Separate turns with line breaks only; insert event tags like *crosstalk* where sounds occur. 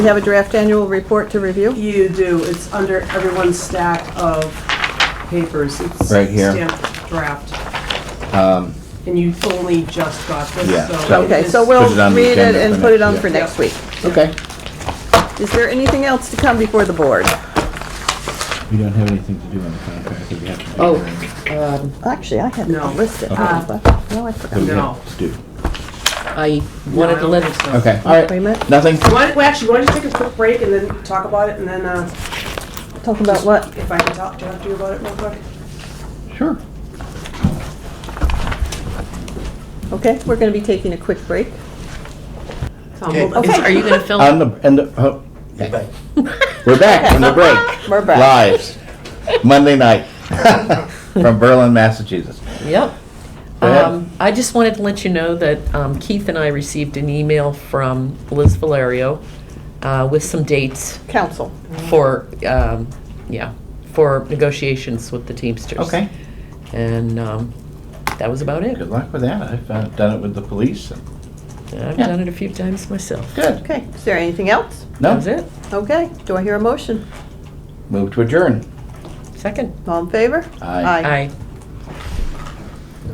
We have a draft annual report to review.
You do, it's under everyone's stack of papers. It's
Right here.
Stamped draft,
Um,
and you only just got
Yeah,
this, so.
so-
it
Okay,
is-
so we'll
Put it on the
read it
agenda
and
for
put it
next-
on
yeah.
for next week.
Okay.
Is there anything else to come before the board?
We don't have anything to do on the contract that we have to do.
Oh,
during-
um,
Actually, I had it
No.
all listed.
Uh,
No, I
that we
forgot.
have
No.
to do.
I
No, I
wanted to
don't
let
think
it,
so.
Okay, all
Wait a
right,
minute,
nothing?
Why, don't- well, actually, why don't you take a quick break and then talk about it, and then, uh,
talk about what?
if I can talk, talk to you about it real quick?
Sure.
Okay, we're gonna be taking a quick break.
Tom,
Okay.
hold-
is- are you gonna film?
On the, and the, oh,
But
we're back from the
*laughs*
break.
We're back.
Live, Monday night, *laughs* from Berlin, Massachusetts.
Yep.
Go ahead.
Um, I just wanted to let you know that um, Keith and I received an email from Liz Valerio uh, with some dates
Council.
for, um, yeah, for negotiations with the Teamsters.
Okay.
And um, that was about it.
Good luck with that. I've uh, done it with the police. and-
I've
Yeah.
done it a few times myself.
Good.
Okay, is there anything else?
That
No,
was it.
Okay, do I hear a motion?
move to adjourn.
Second.
All in favor?
Aye.
Aye.